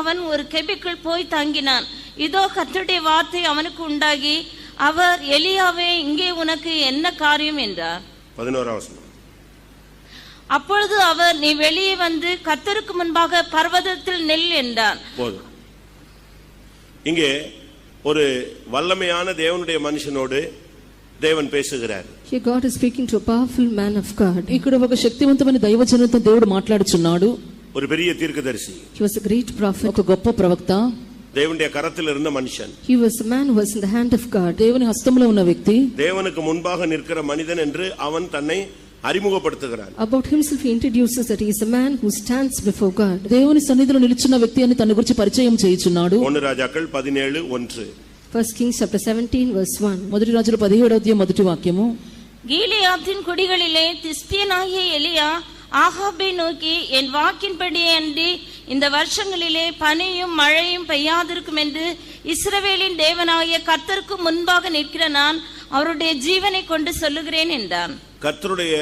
அவன் ஒரு கெபிக்குள் போய் தங்கினான் இதோ கர்த்தருடைய வார்த்தை அவனுக்கு உண்டாகி அவர் எலியாவே இங்கே உனக்கு என்ன காரியம் என்றார் பதினோராம் வசனம் அப்பொழுது அவர் நீ வெளியே வந்து கர்த்தருக்கு முன்பாக பர்வதத்தில் நெல் என்றார் போதும் இங்கே ஒரு வல்லமையான தேவனுடைய மனுஷனோடு தேவன் பேசுகிறார் Here God is speaking to a powerful man of God. ఇక్కడ ఒక శక్తివంతమైన దైవజనంతో దేవుడు మాట్లాడుచున్నాడు ஒரு பெரிய தீர்க்கதரிசி He was a great prophet. ఒక గొప్ప ప్రవక్త தேவனுடைய கரத்தில் இருந்த மனுஷன் He was a man who was in the hand of God. దేవుని హస్తంలో ఉన్న వ్యక్తి தேவனுக்கு முன்பாக நிற்கிற மனிதன் என்று அவன் தன்னை அறிமுகப்படுத்துகிறான் About himself, he introduces that he is a man who stands before God. దేవుని సన్నిధిలో నిలుచున్న వ్యక్తి అని తన గురించి పరిచయం చేయుచున్నాడు ஒன்னு ராஜாக்கள் பதினேழு ஒன்று First Kings chapter 17 verse 1. మొదటి రాజుల పదిహేడవ అధ్యాయం మొదటి వాక్యము கீலியாத்தின் குடிகளிலே திஸ்பியனாகிய எலியா ஆகாபை நோக்கி என் வாக்கின்படியே அன்றி இந்த வருஷங்களிலே பனியும் மழையும் பெய்யாதிருக்கும் என்று இஸ்ரவேலின் தேவனாகிய கர்த்தருக்கு முன்பாக நிற்கிற நான் அவருடைய ஜீவனை கொண்டு சொல்லுகிறேன் என்றான் கர்த்தருடைய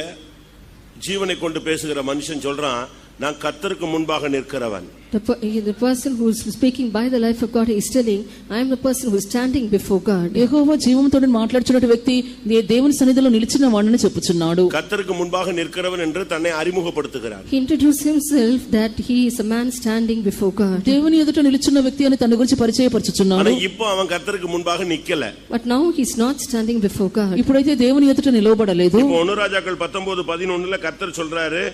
ஜீவனை கொண்டு பேசுகிற மனுஷன் சொல்றான் நான் கர்த்தருக்கு முன்பாக நிற்கிறவன் The, per- he- the person who is speaking by the life of God, he is telling, I am the person who is standing before God. యెహోవా జీవంతో మాట్లాడుచున్న వ్యక్తి దే- దేవుని సన్నిధిలో నిలిచిన వాడిని చెప్పుచున్నాడు கர்த்தருக்கு முன்பாக நிற்கிறவன் என்று தன்னை அறிமுகப்படுத்துகிறான் He introduced himself that he is a man standing before God. దేవుని ఎదుట నిలుచున్న వ్యక్తి అని తన గురించి ஆனா పరిచయపరచుచున్నాడు இப்போ அவன் கர்த்தருக்கு முன்பாக நிக்கல But now he is not standing before God. ఇప్పుడైతే దేవుని ఎదుట నిలవబడలేదు இப்போ ஒனுராஜாக்கள் பத்தொன்பது பதினொன்னுல கர்த்தர் சொல்றாரு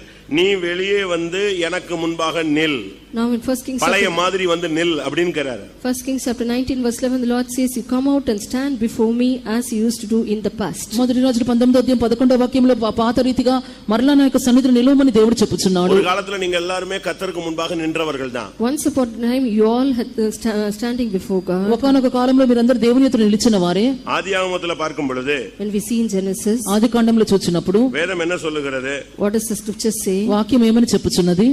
நீ வெளியே வந்து எனக்கு முன்பாக நில் Now in First Kings பழைய மாதிரி வந்து நில் அப்படின்னுக்கிறாரு First Kings chapter 19 verse 11 the Lord says you come out and stand before me as you used to do in the past. మొదటి రాజులు పంతొమ్మిదో అధ్యాయం పదకొండో వాక్యంలో పా- పాత రీతిగా మరలా నా యొక్క సన్నిధిని నిలవమని దేవుడు చెప్పుచున్నాడు ஒரு காலத்துல நீங்க எல்லாருமே கர்த்தருக்கு முன்பாக நின்றவர்கள் தான் Once upon a time you all had uh, sta- uh, standing before God. ఒకనొక కాలంలో మీరందరూ దేవుని ఎదుట నిలిచిన వారే ஆதி பார்க்கும் பொழுது When we see in Genesis ఆది కాండంలో చూచినప్పుడు வேதம் என்ன சொல்லுகிறது what does the scripture say? వాక్యం ఏమని చెప్పుచున్నది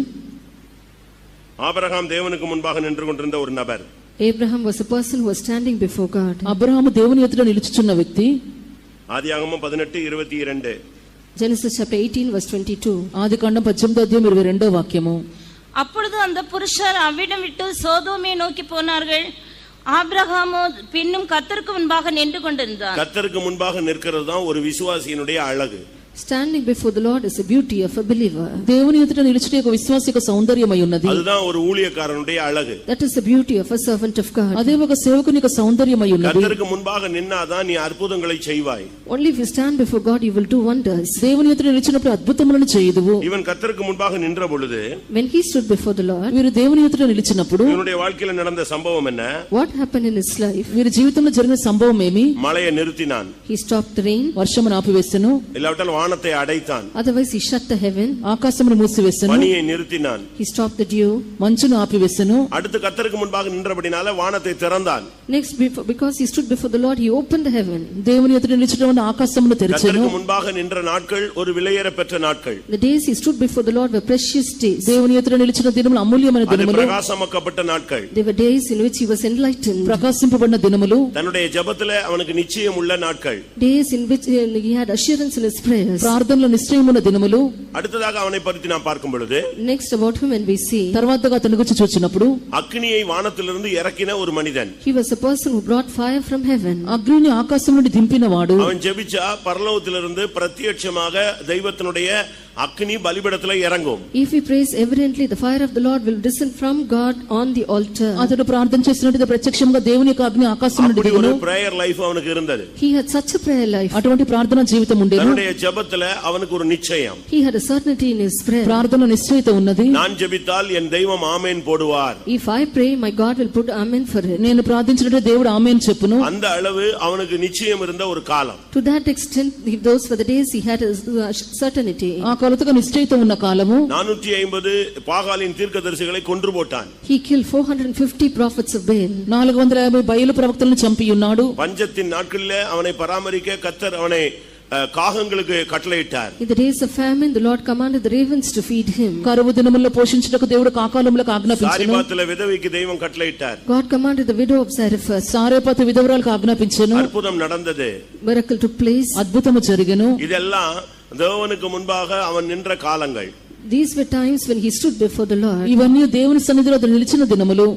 ஆபிரகாம் தேவனுக்கு முன்பாக நின்று கொண்டிருந்த ஒரு நபர் Abraham was a person who was standing before God. Abraham దేవుని ఎదుట నిలుచుచున్న వ్యక్తి ஆதியாகமம் பதினெட்டு இருபத்தி இரண்டு Genesis chapter 18 verse 22. ఆది కాండం పద్దెనిమిదో అధ్యాయం ఇరవై రెండో వాక్యము அப்பொழுது அந்த புருஷர் அவ்விடம் விட்டு சோதோமை நோக்கி போனார்கள் ஆபிரகாமோ பின்னும் கர்த்தருக்கு முன்பாக நின்று கொண்டிருந்தான் கர்த்தருக்கு முன்பாக நிற்கிறது தான் ஒரு விசுவாசியினுடைய அழகு Standing before the Lord is the beauty of a believer. దేవుని ఎదుట నిలిచిన యొక్క విశ్వాస యొక్క సౌందర్యమై ఉన్నది அதுதான் ஒரு ஊழியக்காரனுடைய அழகு That is the beauty of a servant of God. అదే ఒక సేవకుని యొక్క సౌందర్యమై ఉన్నది கர்த்தருக்கு முன்பாக நின்னாதான் நீ அற்புதங்களை செய்வாய் Only if you stand before God you will do wonders. దేవుని ఎదుట నిలిచినప్పుడు అద్భుతములను చేయదువు இவன் கர்த்தருக்கு முன்பாக நின்ற பொழுது When he stood before the Lord, వీరు దేవుని ఎదుట నిలిచినప్పుడు இவனுடைய வாழ்க்கையில நடந்த சம்பவம் என்ன what happened in his life? వీరి జీవితంలో జరిగిన సంభవం ఏమి மழையை நிறுத்தினான் He stopped the rain. వర్షమును ఆపివేసెను இல்லாவிட்டால் வானத்தை அடைத்தான் Otherwise he shut the heaven. ఆకాశమును మూసివేసెను பனியை நிறுத்தினான் He stopped the dew. మంచును ఆపివేసెను அடுத்து கர்த்தருக்கு முன்பாக நின்றபடினால வானத்தை திறந்தான் Next, before, because he stood before the Lord, he opened the heaven. దేవుని ఎదుట నిలిచడం వలన ఆకాశమును తెరిచెను கர்த்தருக்கு முன்பாக நின்ற நாட்கள் ஒரு விலையேற பெற்ற நாட்கள் The days he stood before the Lord were precious days. దేవుని ఎదుట నిలిచిన దినములు అమూల్యమైన அது దినములు பிரகாசமாக்கப்பட்ட நாட்கள் They were days in which he was enlightened, ప్రకాశింపబడిన దినములు தன்னுடைய ஜெபத்துல அவனுக்கு நிச்சயம் உள்ள நாட்கள் days in which uh, he had assurance in his prayers. ప్రార్థనలో నిశ్చయమున్న దినములు அடுத்ததாக அவனை பற்றி நான் பார்க்கும் பொழுது Next, about him, when we see, తర్వాతగా అతని గురించి చూచినప్పుడు அக்னியை வானத்திலிருந்து இறக்கின ஒரு மனிதன் he was a person who brought fire from heaven. అగ్నిని ఆకాశం నుండి దింపినవాడు அவன் ஜெபிச்சா பரலோகத்திலிருந்து பிரத்யட்சமாக தெய்வத்தினுடைய அக்னி பலிபடத்துல இறங்கும் If he prays reverently, the fire of the Lord will descend from God on the altar. అతడు ప్రార్థన చేసినట్టు ప్రత్యక్షంగా దేవుని యొక్క అగ్ని ఆకాశం నుండి அப்படி దిగును ஒரு பிரேயர் லைஃப் அவனுக்கு இருந்தது He had such a prayer life. అటువంటి ప్రార్థన జీవితం ఉండేను தன்னுடைய ஜெபத்துல அவனுக்கு ஒரு நிச்சயம் He had a certainty in his prayer. ప్రార్థన నిశ్చయిత ఉన్నది நான் ஜெபித்தால் என் தெய்வம் ஆமேன் போடுவார் If I pray, my God will put amen for it. నేను ప్రార్థించినట్టు దేవుడు ఆమె అని చెప్పును அந்த அளவு அவனுக்கு நிச்சயம் இருந்த ஒரு காலம் To that extent, he- those were the days he had a uh, certainty. ఆ కొలతగా నిశ్చయిత ఉన్న కాలము நானூற்றி ஐம்பது பாகாலின் தீர்க்கதரிசிகளை கொன்று போட்டான் He killed 450 prophets of Baal. నాలుగు వందల యాభై బయలు ప్రవక్తలను చంపి ఉన్నాడు பஞ்சத்தின் நாட்களிலே அவனை பராமரிக்க கத்தர் அவனை அஹ், காகங்களுக்கு கட்டளையிட்டார் In the days of famine, the Lord commanded the ravens to feed him. కరువు దినముల్లో పోషించుటకు దేవుడు కాకాలంలో ఆజ్ఞాపించను சாரிபாத்துல விதவைக்கு தெய்வம் கட்டளையிட்டார் God commanded the widow of Zarephath. సారేపాత విధవరాలకు ఆజ్ఞాపించను அற்புதம் நடந்தது Miracle took place. అద్భుతము జరిగెను இதெல்லாம் தேவனுக்கு முன்பாக அவன் நின்ற காலங்கள் These were times when he stood before the Lord. ఇవన్నీ దేవుని సన్నిధిలో అతడు నిలిచిన దినములు